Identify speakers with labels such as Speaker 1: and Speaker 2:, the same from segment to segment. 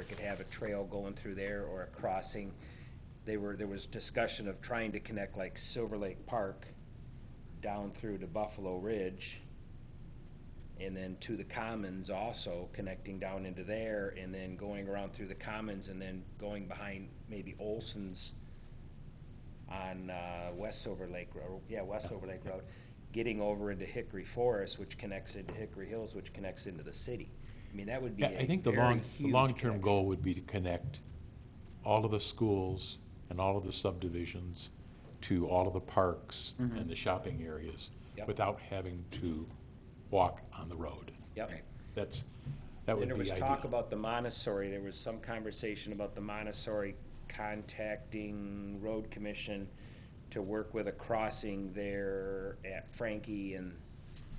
Speaker 1: it could have a trail going through there or a crossing. They were, there was discussion of trying to connect like Silver Lake Park down through to Buffalo Ridge and then to the commons also, connecting down into there, and then going around through the commons, and then going behind maybe Olson's on, uh, West Silver Lake Road, yeah, West Silver Lake Road, getting over into Hickory Forest, which connects into Hickory Hills, which connects into the city. I mean, that would be
Speaker 2: Yeah,
Speaker 1: a
Speaker 2: I think the
Speaker 1: very
Speaker 2: long, the
Speaker 1: huge
Speaker 2: long-term
Speaker 1: connection.
Speaker 2: goal would be to connect all of the schools and all of the subdivisions to all of the parks and the shopping areas
Speaker 1: Mm-hmm. Yep.
Speaker 2: without having to walk on the road.
Speaker 1: Yep.
Speaker 2: That's, that would
Speaker 1: And
Speaker 2: be
Speaker 1: there was
Speaker 2: ideal.
Speaker 1: talk about the Montessori, there was some conversation about the Montessori contacting road commission to work with a crossing there at Frankie and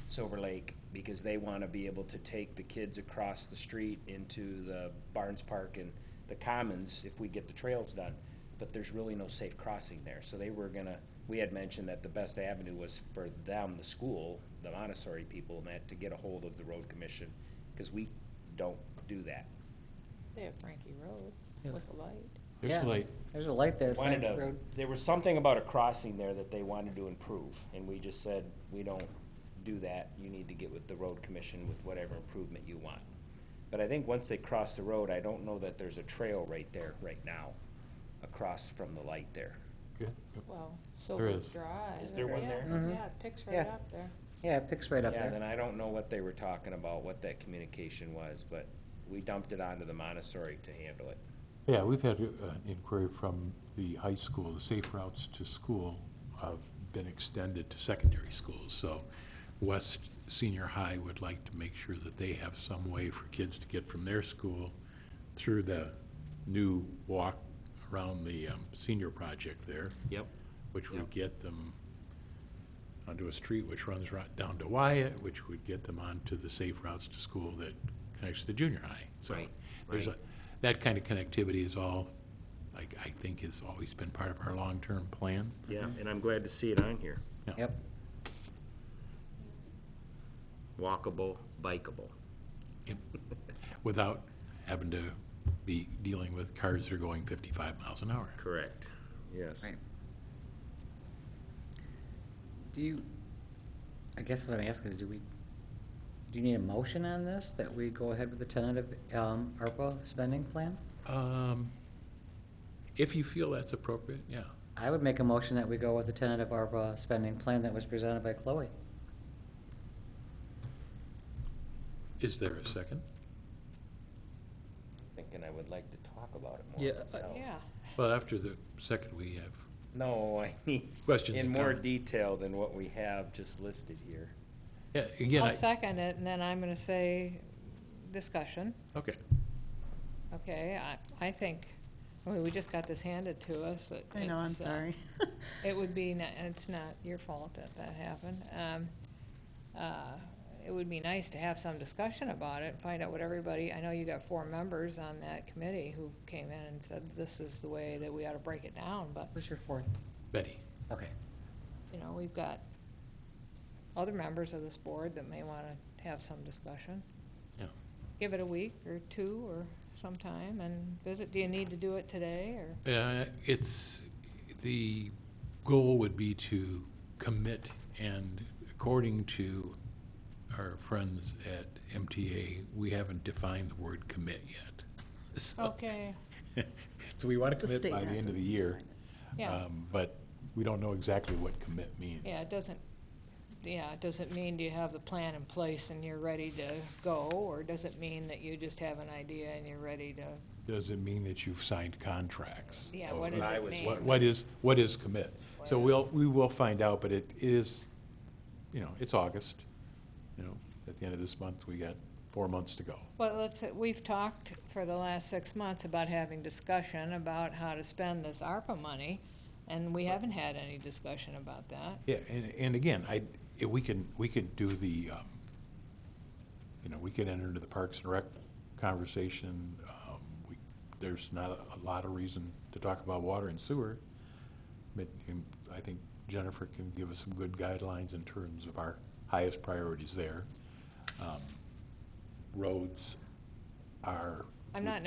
Speaker 1: Silver Lake, because they wanna be able to take the kids across the street into the Barnes Park and the Commons if we get the trails done. But there's really no safe crossing there, so they were gonna, we had mentioned that the best avenue was for them, the school, the Montessori people, and that to get a hold of the road commission, cause we don't do that.
Speaker 3: They have Frankie
Speaker 4: Yeah.
Speaker 3: Road with a light.
Speaker 2: There's
Speaker 4: Yeah.
Speaker 2: like-
Speaker 4: There's a light there,
Speaker 1: Wanted
Speaker 4: Frank
Speaker 1: to,
Speaker 4: Road.
Speaker 1: there was something about a crossing there that they wanted to improve, and we just said, we don't do that, you need to get with the road commission with whatever improvement you want. But I think once they cross the road, I don't know that there's a trail right there, right now, across from the light there.
Speaker 3: Well, Silver
Speaker 2: is.
Speaker 3: Drive.
Speaker 1: Is there one
Speaker 3: yeah,
Speaker 1: there?
Speaker 4: Mhm.
Speaker 3: Yeah, it picks
Speaker 4: Yeah.
Speaker 3: right up there.
Speaker 4: Yeah, it picks right up
Speaker 1: Yeah,
Speaker 4: there.
Speaker 1: then I don't know what they were talking about, what that communication was, but we dumped it onto the Montessori to handle it.
Speaker 2: Yeah, we've had uh, an inquiry from the high school, the safe routes to school have been extended to secondary schools. So West Senior High would like to make sure that they have some way for kids to get from their school through the new walk around the um, senior project there,
Speaker 1: Yep.
Speaker 2: which would
Speaker 1: Yep.
Speaker 2: get them onto a street which runs right down to Wyatt, which would get them onto the safe routes to school that connects to the junior high. So
Speaker 1: Right,
Speaker 2: there's a,
Speaker 1: right.
Speaker 2: that kind of connectivity is all, like, I think has always been part of our long-term plan.
Speaker 4: Mm-hmm.
Speaker 1: Yeah, and I'm glad to see it on here.
Speaker 4: Yep.
Speaker 1: Walkable, bikeable.
Speaker 2: Without having to be dealing with cars that are going fifty-five miles an hour.
Speaker 1: Correct, yes.
Speaker 4: Right. Do you, I guess what I'm asking is, do we, do you need a motion on this, that we go ahead with the tentative, um, ARPA spending plan?
Speaker 2: Um, If you feel that's appropriate, yeah.
Speaker 4: I would make a motion that we go with the tentative ARPA spending plan that was presented by Chloe.
Speaker 2: Is there a second?
Speaker 1: Thinking I would like to talk about it more
Speaker 4: Yeah, I-
Speaker 1: myself.
Speaker 3: Yeah.
Speaker 2: Well, after the second, we have
Speaker 1: No, I mean,
Speaker 2: questions.
Speaker 1: in
Speaker 2: and
Speaker 1: more
Speaker 2: comments.
Speaker 1: detail than what we have just listed here.
Speaker 2: Yeah, again,
Speaker 3: I'll
Speaker 2: I,
Speaker 3: second it, and then I'm gonna say discussion.
Speaker 2: okay.
Speaker 3: Okay, I, I think, I mean, we just got this handed to us. that
Speaker 5: I know, I'm
Speaker 3: it's, uh,
Speaker 5: sorry.
Speaker 3: It would be, ni- it's not your fault that that happened. Um, uh, It would be nice to have some discussion about it, find out what everybody, I know you got four members on that committee who came in and said, this is the way that we ought to break it down, but,
Speaker 4: Who's your fourth?
Speaker 2: Betty?
Speaker 4: Okay.
Speaker 3: you know, we've got other members of this board that may want to have some discussion.
Speaker 2: Yeah.
Speaker 3: Give it a week or two or sometime and visit, do you need to do it today, or?
Speaker 2: Uh, It's, the goal would be to commit, and according to our friends at MTA, we haven't defined the word commit yet. So-
Speaker 3: Okay,
Speaker 2: So we want to
Speaker 5: The
Speaker 2: commit
Speaker 5: state
Speaker 2: by the end of
Speaker 5: hasn't
Speaker 2: the year,
Speaker 3: yeah,
Speaker 2: um, but we don't know exactly what commit means.
Speaker 3: yeah, it doesn't, yeah, it doesn't mean do you have the plan in place and you're ready to go, or does it mean that you just have an idea and you're ready to,
Speaker 2: Does it mean that you've signed contracts?
Speaker 3: yeah,
Speaker 2: Oh,
Speaker 3: what does
Speaker 1: what I
Speaker 3: it
Speaker 1: was
Speaker 3: mean?
Speaker 2: What, what is, what is commit? So we'll, we will find out, but it is, you know, it's August, you know, at the end of this month, we got four months to go.
Speaker 3: Well, let's, we've talked for the last six months about having discussion about how to spend this ARPA money, and we haven't had any discussion about that.
Speaker 2: Yeah, and, and again, I, if we can, we could do the, um, you know, we could enter into the Parks and Rec conversation. Um, we- There's not a- a lot of reason to talk about water and sewer. But um, I think Jennifer can give us some good guidelines in terms of our highest priorities there. Um, Roads are.
Speaker 3: I'm not